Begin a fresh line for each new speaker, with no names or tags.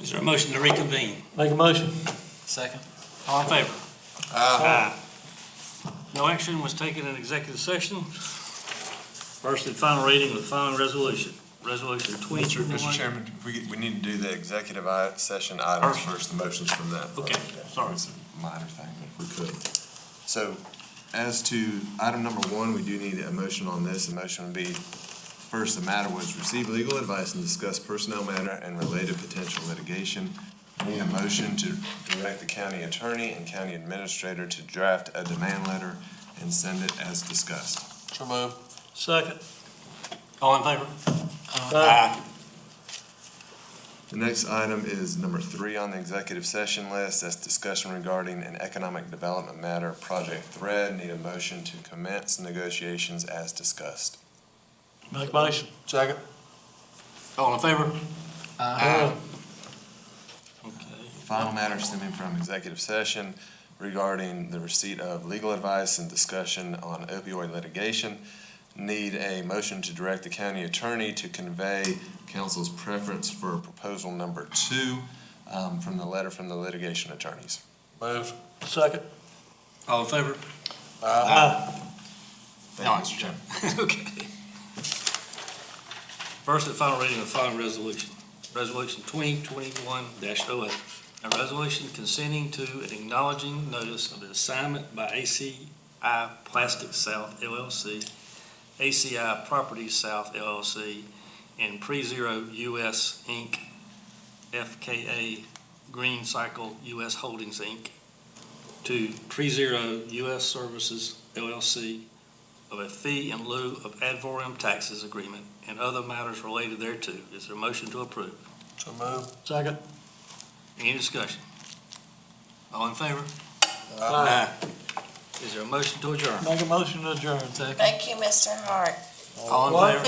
Is there a motion to reconvene?
Make a motion.
Second.
All in favor?
Uh,
Aye. No action was taken in executive session. First and final reading of the following resolution, Resolution
Mr.
2021.
Mr. Chairman, we, we need to do the executive i- session items
Or-
first, the motions from that.
Okay, sorry.
It's a Minor thing, if we could. So as to item number one, we do need a motion on this. The motion would be, first, the matter was receive legal advice and discuss personnel matter and related potential litigation. We Need a motion to direct the county attorney and county administrator to draft a demand letter and send it as discussed.
So moved.
Second. All in favor?
The next item is number three on the executive session list. That's discussion regarding an economic development matter, Project Thread. Need a motion to commence negotiations as discussed.
Make a motion.
Second.
All in favor?
Aye.
Okay.
Final matter stemming from executive session regarding the receipt of legal advice and discussion on opioid litigation. Need a motion to direct the county attorney to convey council's preference for proposal number two um, from the letter from the litigation attorneys.
Moved.
Second.
All in favor?
Aye.
Thank you, Mr. Chairman.
Okay. First and final reading of the following resolution, Resolution 2021-08, a resolution consenting to and acknowledging notice of the assignment by ACI Plastic South LLC, ACI Properties South LLC, and Prezero US Inc., FKA Green Cycle US Holdings Inc., to Prezero US Services LLC, of a fee in lieu of ad valorem taxes agreement and other matters related thereto. Is there a motion to approve?
So moved.
Second.
Any discussion? All in favor? Is there a motion to adjourn?
Make a motion to adjourn. Second.
Thank you, Mr. Hart.
All in
What?
favor?